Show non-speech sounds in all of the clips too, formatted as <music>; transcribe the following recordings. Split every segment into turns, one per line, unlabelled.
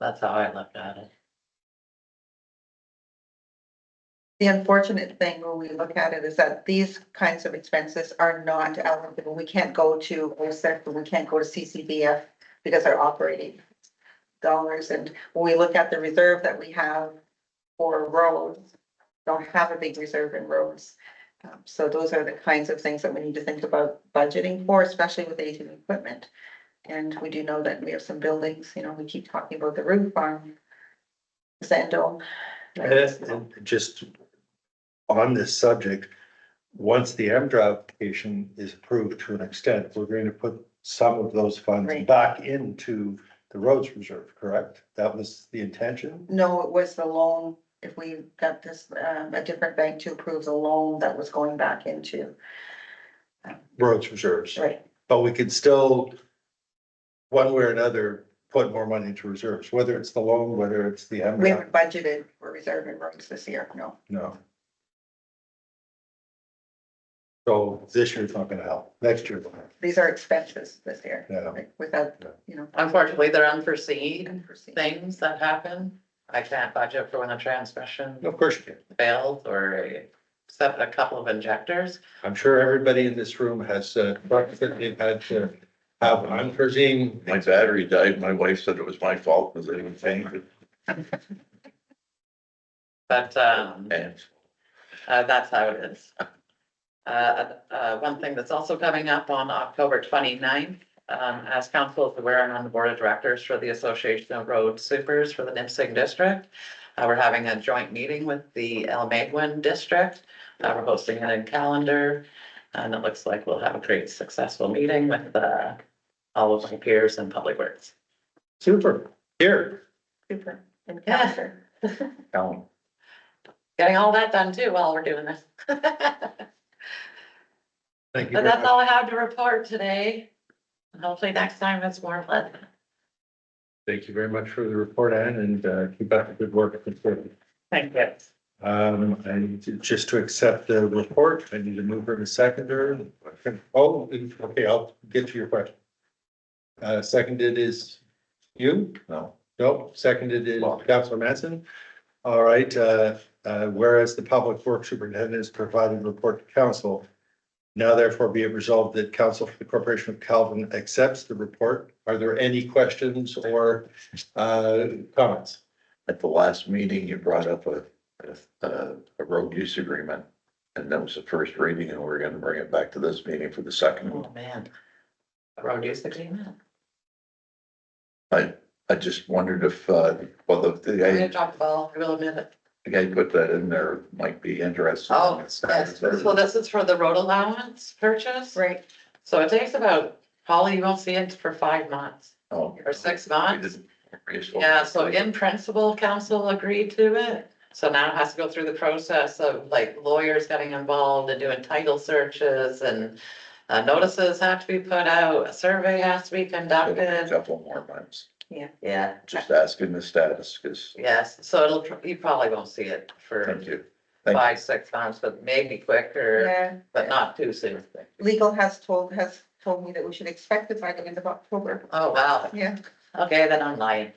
That's how I looked at it.
The unfortunate thing when we look at it is that these kinds of expenses are not allocable. We can't go to OSEC, we can't go to CCBF because they're operating dollars. And when we look at the reserve that we have for roads, don't have a big reserve in roads. Um, So those are the kinds of things that we need to think about budgeting for, especially with aging equipment. And we do know that we have some buildings, you know, we keep talking about the roof farm, Zendo.
And just on this subject, once the MDRA application is approved to an extent, we're going to put some of those funds
Right.
back into the roads reserve, correct? That was the intention?
No, it was the loan, if we got this, um, a different bank to approve the loan that was going back into,
Roads reserves,
right,
but we could still, one way or another, put more money into reserves, whether it's the loan, whether it's the
we
MDRA,
haven't budgeted for reserve and roads this year, no.
no. So this year's not gonna help, next year, will help.
These are expenses this year,
yeah.
like, without, you know,
Unfortunately, they're unforeseen
unforeseen.
things that happen. I can't budget for when a transmission
Of course you can.
failed or a- except a couple of injectors.
I'm sure everybody in this room has, uh, trucks that they've had to have unforeseen.
My battery died. My wife said it was my fault because I didn't change it.
But um,
And
uh, that's how it is. Uh, uh, one thing that's also coming up on October 29th, um, as council is aware, I'm on the board of directors for the Association of Road Supers for the Nipissing District. Uh, we're having a joint meeting with the El Magwin District. Uh, we're hosting it in calendar. And it looks like we'll have a great successful meeting with, uh, all of my peers in Public Works.
Super. Here.
Super encounter.
Alan.
Getting all that done too while we're doing this. <laughs> But
Thank you very
that's
much.
all I have to report today. And Hopefully next time it's more pleasant.
Thank you very much for the report, Ann, and, uh, keep up the good work.
Thank you.
Um, I need to, just to accept the report, I need a mover and a seconder. Oh, okay, I'll get to your question. Uh, seconded is you?
no,
Nope, seconded is Councilor Manson. All right, uh, uh, whereas the public works superintendent is providing report to council. Now therefore be it resolved that council for the corporation of Calvin accepts the report. Are there any questions or, uh, comments?
at the last meeting, you brought up a, a, a road use agreement. And that was the first reading and we're gonna bring it back to this meeting for the second. one.
Oh, man. Road use agreement.
I, I just wondered if, uh, well, the, the
I'm gonna
guy,
drop the ball. I will admit it.
the guy who put that in there might be interested.
Oh, yes. So this is for the road allowance purchase.
Right,
So it takes about, probably you won't see it for five months
Oh.
or six
We
months.
didn't- we just-
Yeah, so in principle, council agreed to it. So now it has to go through the process of like lawyers getting involved and doing title searches and uh, notices have to be put out, a survey has to be
A
conducted.
Couple more months,
Yeah,
just asking the status, because,
yes. So it'll, pr- you probably won't see it for
thank you. Thank you.
five, six months, but maybe quicker,
yeah,
but not too soon.
legal has told, has told me that we should expect it by the end of October,
Oh, wow.
yeah.
Okay, then I'm lying.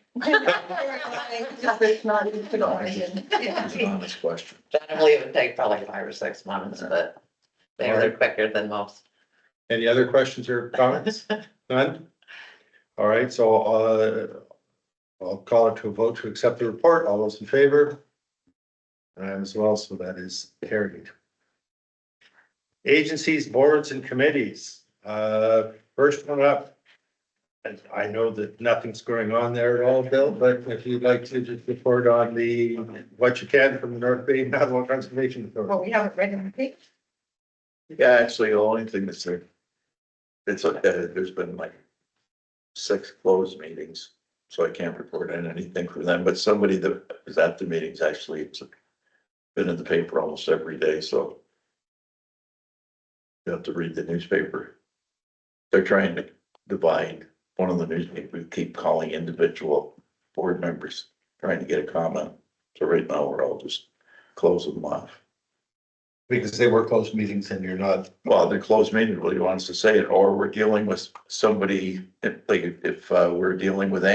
Just it's not even to go on again. Yeah.
It's an honest question.
Generally, it would take probably five or six months, but they're they're quicker than most.
Any other questions or comments? None? All right, so, uh, I'll call it to a vote to accept the report. All those in favor? And I'm as well, so that is carried. Agencies, boards and committees, uh, first one up. And I know that nothing's going on there at all, Bill, but if you'd like to just report on the, what you can from the North Bay Navajo Conservation Authority.
Well, we haven't read in the paper.
Yeah, actually, the only thing that's there. It's, uh, there's been like six closed meetings, so I can't report on anything for them, but somebody that was at the meetings actually it's been in the paper almost every day, so you have to read the newspaper. They're trying to divide, one of the newspapers keep calling individual board members, trying to get a comment. So right now, we're all just closing them off.
Because they were closed meetings and you're not
Well, the closed meeting really wants to say it, or we're dealing with somebody, if, like, if uh, we're dealing with